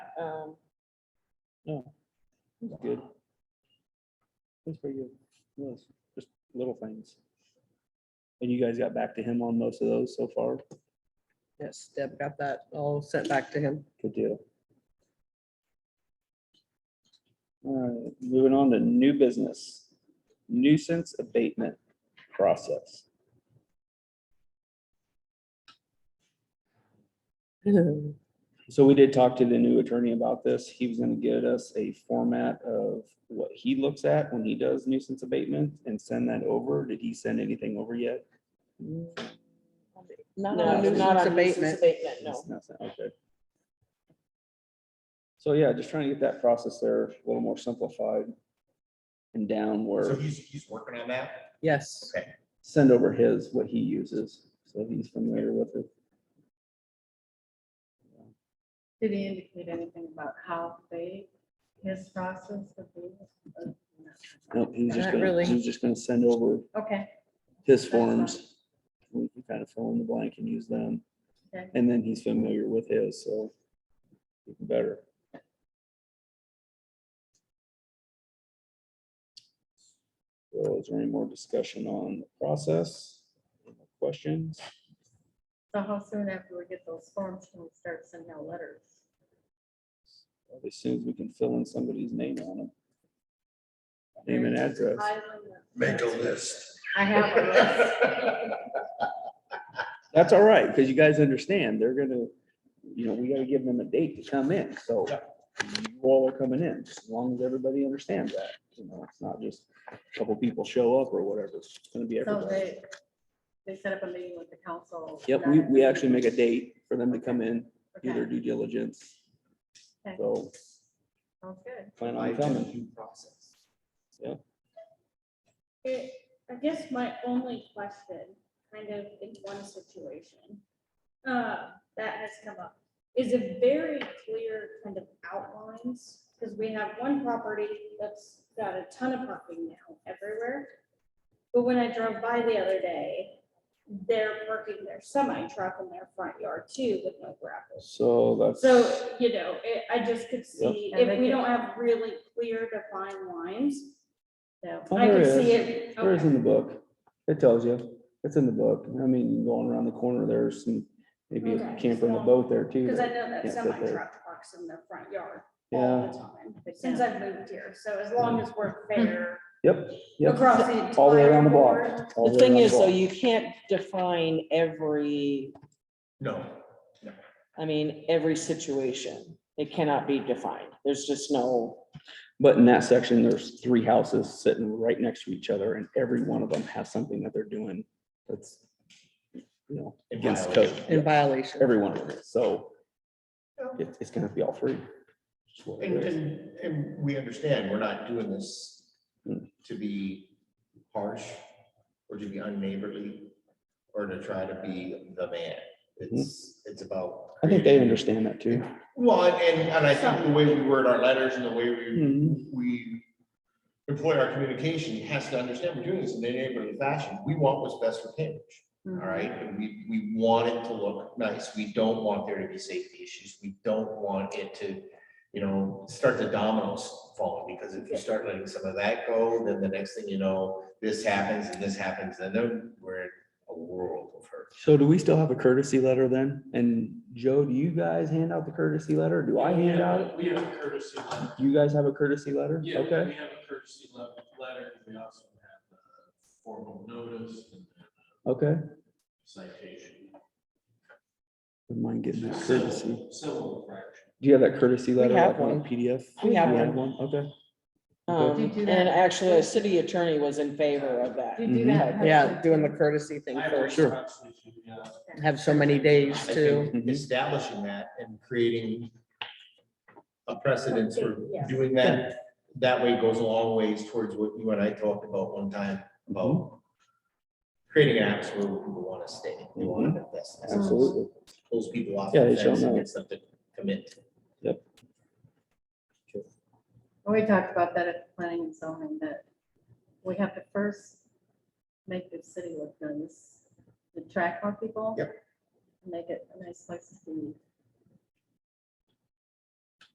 um, It's good. It's pretty good. Well, it's Just little things. And you guys got back to him on most of those so far? yes, Deb got that all sent back to him. Good deal. All right, moving on to new business, nuisance abatement process. So we did talk to the new attorney about this. He was gonna get us a format of what he looks at when he does nuisance abatement and send that over. Did he send anything over yet? Not No, on it's nuisance not abatement. It's not sent, Okay. So yeah, just trying to get that process there a little more simplified and down So where he's, he's working on that? Yes, send over his, what he uses, so he's familiar with it. Did he indicate anything about how big his process would be? Nope, he's just Not gonna, really. he's just gonna send over Okay, his fine. forms. We can kind of fill in the blank and use them. okay. And then he's familiar with his, so even better. So is there any more discussion on the process? Any more Questions? So how soon after we get those forms can we start sending out letters? As soon as we can fill in somebody's name on them. Name and address. Make a list. I have a list. That's all right, because you guys understand, they're gonna, you know, we gotta give them a date to come in, so Yeah. you all are coming in, as long as everybody understands that, you know, it's not just a couple people show up or whatever, it's gonna be So everybody. they, they set up a meeting with the council. Yep, we, we actually make a date for them to come in, do their due diligence. Okay. So Sounds good. plan on coming. It, I guess my only question, kind of in one situation, uh, that has come up, is a very clear kind of outlines, because we have one property that's got a ton of parking now everywhere. But when I drove by the other day, they're parking their semi truck in their front yard too with no gravel. So that's. So, you know, it, I just could see, And if they we can- don't have really clear defined lines, So, Oh, I there can is. see it. There is Okay. in the book. It tells you. It's in the book. I mean, going around the corner, there's some, maybe a Okay, camper in a so- boat there too. Because I that- know Can't that fit semi there. truck parks in their front yard all the time, since I've moved here, so as long as we're fair Yep, yep. across the entire. All the way around the board, block. all the way thing around the is, though, block. you can't define every, No, I mean, every situation. It cannot be defined. There's just no. But in that section, there's three houses sitting right next to each other and every one of them has something that they're doing that's, you know, In against violation. code. In Yep, violation. Every one of them is. So it's, it's gonna be all three. Just what it and, is. and, and we understand, we're not doing this to be harsh or to be unneighborly or to try to be the man. It's, it's about. I think they creating- understand that too. Well, and- and, and I think the way we word our letters and the way we, we employ our communication has to understand we're doing this in a neighborly fashion. We want what's best for Cambridge. Mm-hmm. All right, and we, we want it to look nice. We don't want there to be safety issues. We don't want it to, you know, start the dominoes falling, because if you start letting some of that go, then the next thing you know, this happens and this happens, and then we're in a world of hurt. So do we still have a courtesy letter then? And Joe, do you guys hand out the courtesy letter? or Do I hand out it? We have a courtesy letter. Do you guys have a courtesy letter? Yeah, we- Okay, We have a courtesy le- letter, and we also have the formal notice and then okay. a citation. Don't mind getting that courtesy. Civil infraction. Do you have that courtesy letter? have like, on a one. PDF? We have You one. Okay. Um, Do you do that? and actually, a city attorney was in favor of that. You Mm-hmm. do that. Yeah, doing the courtesy thing I have first. sure. approximately, yeah. Have so many days I to, think Establishing that and creating a precedence for Yeah. doing that, that way goes a long ways towards what you and I talked about one time, about Mm-hmm. creating apps where people want to stay, they want to invest. Absolutely. pulls people off. Yeah, they the show fence and no- Gets them to commit. We talked about that at planning and zoning, that we have to first make the city look nice, attract more people. Yep. Make it a nice place to be.